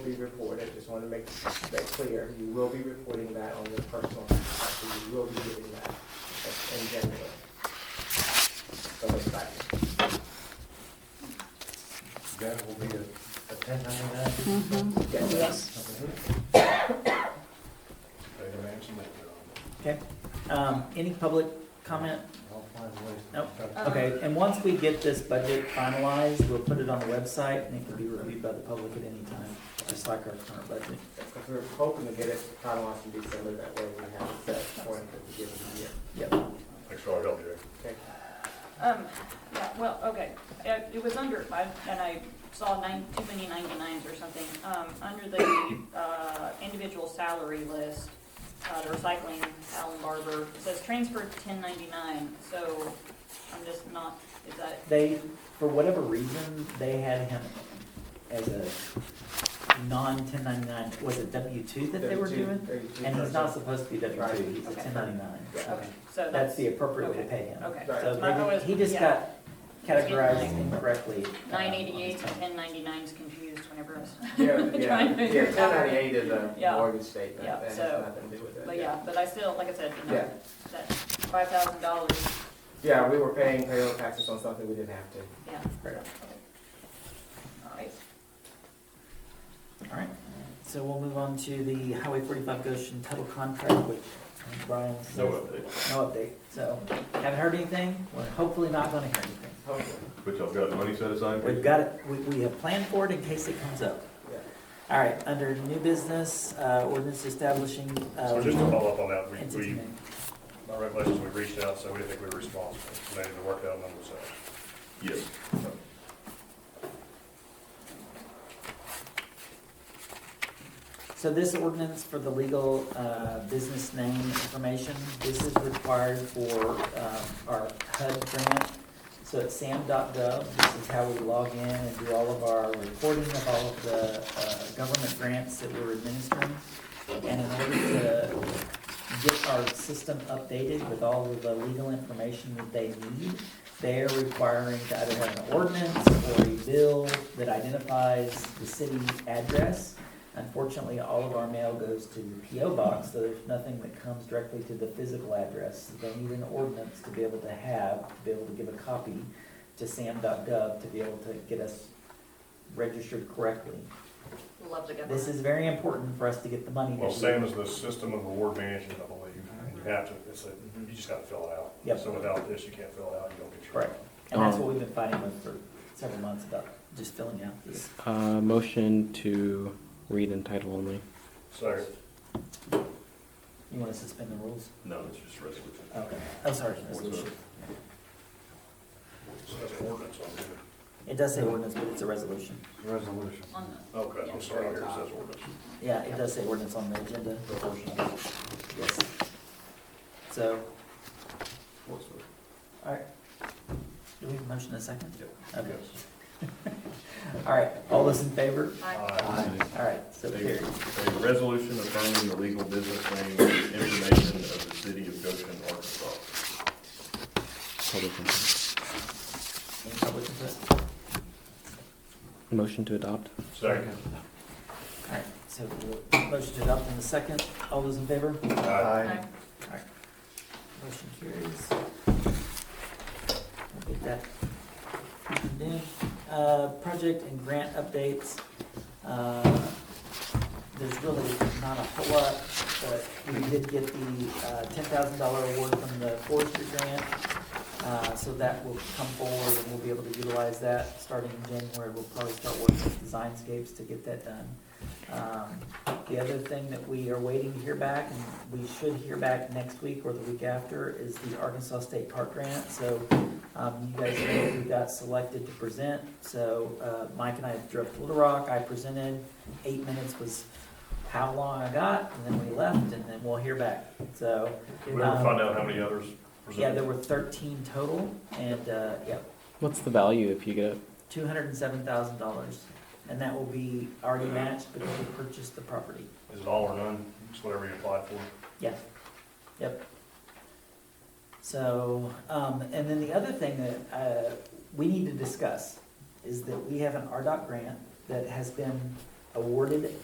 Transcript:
be reported, I just want to make that clear. You will be reporting that on your personal, tax, so you will be giving that in January. So it's back. That will be a, a ten ninety-nine. Yes. Better mention that they're Okay, um, any public on. comment? I'll find ways. to- Nope. Okay, and once we get this budget finalized, we'll put it on the website and it can be reviewed by the public at any time, just like our current budget. Because we're hoping to get it finalized in December, that way we have it set for the beginning of the year. Yep. Thanks for all your help, Jerry. Okay? Um, yeah, well, okay, it, it was under, I, and I saw nine, too many ninety-nines or something. Um, under the, uh, individual salary list, uh, the recycling, Alan Barber, it says transfer ten ninety-nine, so I'm just not, is that, They, for whatever reason, they had him as a non-ten ninety-nine, was it W two that they were 32 doing? 32 And he's not percent. supposed to be W two, he's a ten ninety-nine. okay, so That's that's, the appropriate way to okay, pay him. okay. Right. So My- I was- maybe he just yeah. got categorized incorrectly. uh, on his Nine eighty-eight time. and ten ninety-nine's confused whenever I was Yeah, trying to yeah, figure yeah, it ten out. ninety-eight is a Yeah. mortgage statement, Yeah, that has so- nothing to do with it. But yeah, but I still, like I said, you Yeah. know, that five thousand dollars, Yeah, we were paying payroll taxes on something we didn't have to. yeah. Right. All right. All right, so we'll move on to the Highway forty-five Goshen title contract, which um, Brian says. No update, No update, so haven't heard anything, we're hopefully not gonna hear anything. Hopefully, but y'all got money set aside? We've got it, we, we have planned for it in case it comes up. yeah. All right, under new business, uh, ordinance establishing, uh. So just to follow up on that, we, entity we, name. our regulations, we reached out, so we didn't think we were responsible, so they need to work out numbers out. Yes. So this ordinance for the legal, uh, business name information, this is required for, um, our HUD grant. So at sam.gov, this is how we log in and do all of our reporting of all of the, uh, government grants that we're administering. And in order to get our system updated with all of the legal information that they need, they are requiring to either have an ordinance or a bill that identifies the city address. Unfortunately, all of our mail goes to the PO box, so there's nothing that comes directly to the physical address. They need an ordinance to be able to have, to be able to give a copy to sam.gov to be able to get us registered correctly. Love the government. This is very important for us to get the money. Well, that we- same as the system of reward management, I believe, and you have to, it's a, you just gotta fill it out. Yep. So without this, you can't fill it out, you don't get your. Correct. And that's what we've been fighting with for several months about, just filling out this. Uh, motion to read in title only. So, You want to suspend the rules? No, it's just resolution. Okay. Oh, sorry. Resolution. so that's an ordinance on here. It does say ordinance, but it's a resolution. Resolution. On the- Okay, I'm sorry, here it says ordinance. Yeah, it does say ordinance on the agenda. Yes. So, all right. Do we have a motion in a second? Okay. Yes. All right, all those in favor? Aye. All right, so A carried. a resolution affirming the legal business name and information of the city of Goshen, Arkansas. Public input. Any public input? Motion to adopt. Second. All right, so we'll- motion to adopt in a second. All those in favor? Um, Aye. Aye. Motion carries. We'll get that. Then, uh, project and grant updates. Uh, There's really not a whole lot, but we did get the, uh, ten thousand dollar award from the forestry grant. Uh, so that will come forward and we'll be able to utilize that starting in January. We'll probably start working with Designscapes to get that done. Um, the other thing that we are waiting to hear back, and we should hear back next week or the week after, is the Arkansas State Park Grant. So, um, you guys know who got selected to present. So, uh, Mike and I drove to Little Rock, I presented, eight minutes was how long I got, and then we left, and then we'll hear back. So, We ever find out how many others yeah, there presented? were thirteen total, and, uh, yeah, What's the value if you get it? two hundred and seven thousand dollars. And that will be already matched because we purchased the property. Is it all or none? It's whatever you applied for. Yeah, yep. So, um, and then the other thing that, uh, we need to discuss is that we have an RDOT grant that has been awarded